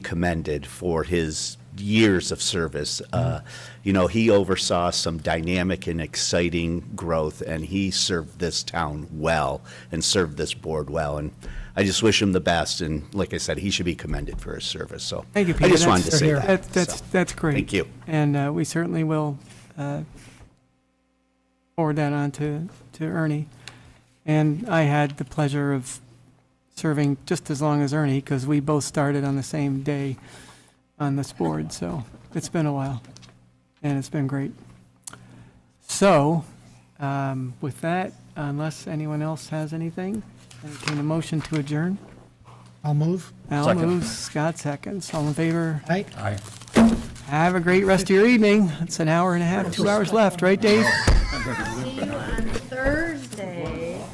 commended for his years of service. Uh, You know, he oversaw some dynamic and exciting growth, and he served this town well and served this board well. And I just wish him the best, and like I said, he should be commended for his service, so. Thank you, Peter. I just wanted to That's- say Here, here. that. That's, that's, so. that's great. Thank you. And uh, we certainly will uh, forward that on to, to Ernie. And I had the pleasure of serving just as long as Ernie, because we both started on the same day on this board, so it's been a while, and it's been great. So, um, with that, unless anyone else has anything, entertain a motion to adjourn. I'll move. Al Second. moves, Scott seconds, all in favor? Aye. Have a great rest of your evening. It's an hour and a half, two hours left, right, Dave? See you on